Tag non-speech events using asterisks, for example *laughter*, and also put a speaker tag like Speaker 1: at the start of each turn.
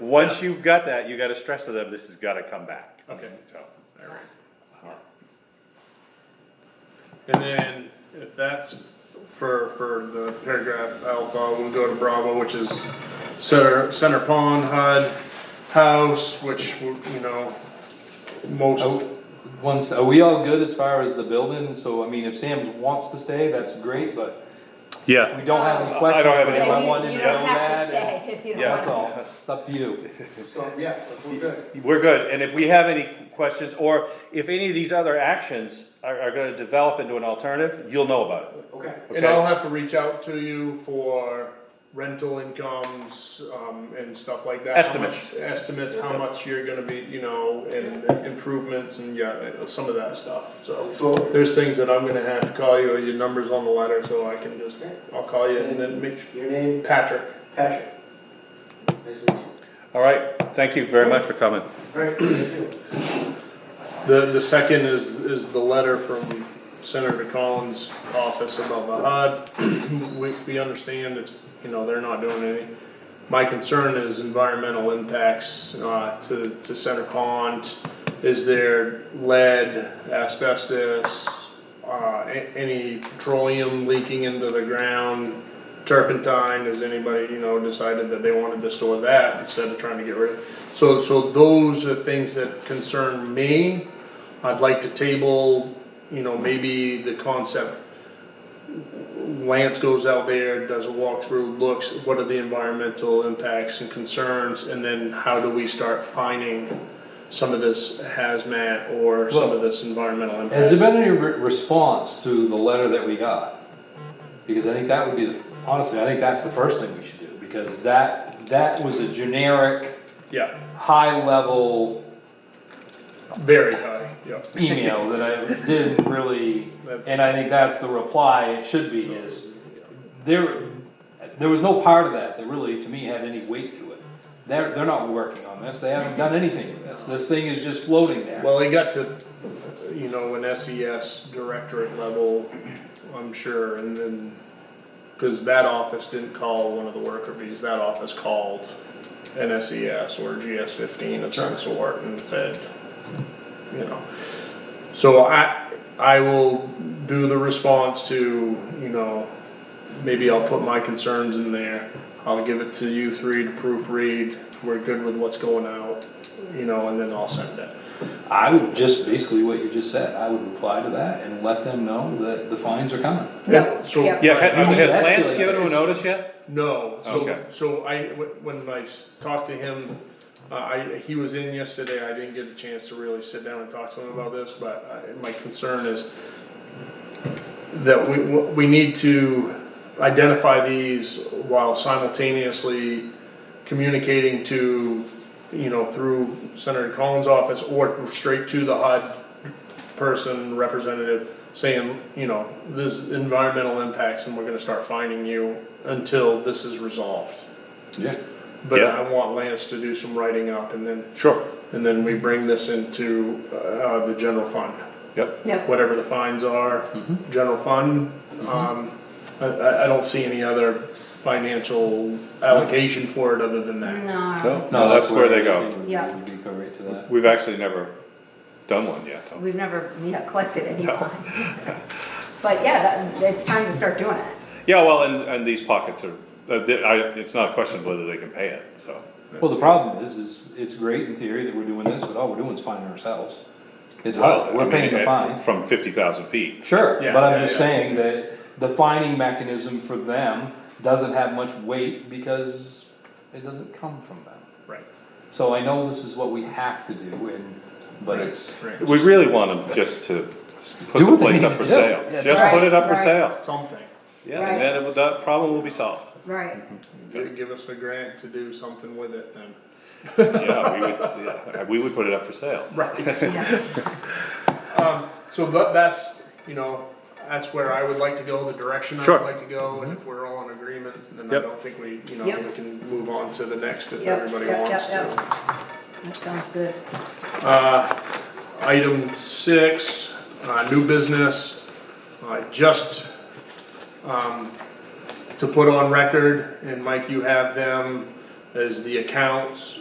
Speaker 1: once you've got that, you gotta stress to them, this has gotta come back.
Speaker 2: Okay.
Speaker 1: So,
Speaker 2: Alright. And then if that's for, for the paragraph alpha, we'll go to Bravo, which is center, center pond, HUD, house, which, you know,
Speaker 3: Oh,
Speaker 2: most,
Speaker 3: Once, are we all good as far as the building? So, I mean, if Sam wants to stay, that's great, but if
Speaker 1: Yeah,
Speaker 3: we don't have
Speaker 1: I
Speaker 3: any questions
Speaker 1: don't have
Speaker 3: for
Speaker 1: any-
Speaker 3: him, Uh, I
Speaker 4: You,
Speaker 3: wanted to
Speaker 4: you
Speaker 3: know
Speaker 4: don't
Speaker 3: that.
Speaker 4: have to
Speaker 3: and-
Speaker 4: stay if you don't
Speaker 1: Yeah.
Speaker 4: want
Speaker 3: That's
Speaker 4: to.
Speaker 3: all, it's up to you.
Speaker 5: So, yeah, we're good.
Speaker 1: we're good, and if we have any questions, or if any of these other actions are, are gonna develop into an alternative, you'll know about it.
Speaker 5: Okay.
Speaker 2: and I'll have to reach out to you for rental incomes, um, and stuff like that. how much-
Speaker 1: Estimates.
Speaker 2: Estimates, how much you're gonna be, you know, and improvements and yeah, some of that stuff, so.
Speaker 5: So,
Speaker 2: There's things that I'm gonna have to call you, or your number's on the letter, so I can just, I'll call you and then make,
Speaker 5: your name,
Speaker 2: Patrick.
Speaker 5: Patrick. Nice to meet you.
Speaker 1: Alright, thank you very much for coming.
Speaker 5: All right, *clears throat* thank you.
Speaker 2: The, the second is, is the letter from Senator Collins' office about the HUD. *clears throat* We, we understand it's, you know, they're not doing any. My concern is environmental impacts, uh, to, to Center Pond. Is there lead, asbestos, uh, a- any petroleum leaking into the ground? Turpentine, has anybody, you know, decided that they wanted to store that instead of trying to get rid of? So, so those are things that concern me. I'd like to table, you know, maybe the concept. Lance goes out there, does a walkthrough, looks, what are the environmental impacts and concerns, and then how do we start finding some of this hazmat or some of this environmental impacts?
Speaker 3: Has there been any re- response to the letter that we got? Because I think that would be, the honestly, I think that's the first thing we should do, because that, that was a generic,
Speaker 2: Yeah,
Speaker 3: high-level
Speaker 2: very high, yeah.
Speaker 3: email that I didn't really, and I think that's the reply it should be is, there, there was no part of that that really, to me, had any weight to it. They're, they're not working on this, they haven't done anything with this, this thing is just floating there.
Speaker 2: Well, it got to, you know, an SES directorate level, I'm sure, and then, cause that office didn't call one of the worker bees, that office called an SES or GS fifteen of some sort and said, you know. So I, I will do the response to, you know, maybe I'll put my concerns in there. I'll give it to you three to proofread, we're good with what's going out, you know, and then I'll send it.
Speaker 3: I would just, basically what you just said, I would reply to that and let them know that the fines are coming.
Speaker 4: Yeah,
Speaker 2: So-
Speaker 4: yeah.
Speaker 1: Yeah, has-
Speaker 3: You
Speaker 1: has
Speaker 3: escalate
Speaker 1: Lance given
Speaker 3: this.
Speaker 1: him a notice yet?
Speaker 2: No,
Speaker 1: Okay.
Speaker 2: so, so I, when I s- talked to him, uh, I, he was in yesterday, I didn't get a chance to really sit down and talk to him about this, but I, my concern is that we, we need to identify these while simultaneously communicating to, you know, through Senator Collins' office or straight to the HUD person, representative, saying, you know, this environmental impacts and we're gonna start finding you until this is resolved.
Speaker 3: Yeah.
Speaker 2: But
Speaker 1: Yeah.
Speaker 2: I want Lance to do some writing up and then,
Speaker 1: Sure.
Speaker 2: and then we bring this into, uh, the general fund.
Speaker 1: Yep. Mm-hmm.
Speaker 4: Yep.
Speaker 2: Whatever the fines are, general fund, um, I, I, I don't see any other financial allocation for it other than that.
Speaker 4: No,
Speaker 1: No, that's where they go.
Speaker 3: everything would
Speaker 4: Yeah.
Speaker 3: be correct to that.
Speaker 1: We've actually never done one yet, though.
Speaker 4: we've never, yeah, collected any
Speaker 1: No.
Speaker 4: fines.
Speaker 3: *laughs*
Speaker 4: But yeah, that, it's time to start doing it.
Speaker 1: Yeah, well, and, and these pockets are, uh, th- I, it's not a question of whether they can pay it, so.
Speaker 3: Well, the problem is, is it's great in theory that we're doing this, but all we're doing is finding ourselves. It's
Speaker 1: I
Speaker 3: hard, we're
Speaker 1: mean,
Speaker 3: paying the
Speaker 1: it-
Speaker 3: fine.
Speaker 1: From fifty thousand feet.
Speaker 3: Sure,
Speaker 2: Yeah,
Speaker 3: but I'm
Speaker 2: yeah,
Speaker 3: just
Speaker 2: yeah.
Speaker 3: saying that the fining mechanism for them doesn't have much weight because it doesn't come from them.
Speaker 2: Right,
Speaker 3: So I know this is what we have to do and, but it's.
Speaker 2: right.
Speaker 1: We really want them just to put
Speaker 3: Do
Speaker 1: the
Speaker 3: what they
Speaker 1: place
Speaker 3: need
Speaker 1: up
Speaker 3: to
Speaker 1: for
Speaker 3: do.
Speaker 1: sale.
Speaker 3: That's
Speaker 1: Just
Speaker 4: right.
Speaker 1: put it up for
Speaker 4: Right.
Speaker 1: sale.
Speaker 2: Something.
Speaker 1: Yeah, and then it- that problem will be solved.
Speaker 3: *laughs*
Speaker 4: Right.
Speaker 2: Give give us a grant to do something with it then.
Speaker 1: Yeah, we would, yeah, we would put it up for sale.
Speaker 2: *laughs* Right.
Speaker 4: Yeah.
Speaker 2: Um, so tha- that's, you know, that's where I would like to go, the direction I
Speaker 1: Sure. Mm-hmm.
Speaker 2: would like to go, and if we're all in agreement, then I
Speaker 1: Yep.
Speaker 2: don't think we, you know,
Speaker 4: Yep.
Speaker 2: we can move on to the next if
Speaker 4: Yep,
Speaker 2: everybody
Speaker 4: yep,
Speaker 2: wants
Speaker 4: yep, yep.
Speaker 2: to.
Speaker 4: That sounds good.
Speaker 2: Uh, item six, uh, new business, uh, just, um, to put on record, and Mike, you have them, as the accounts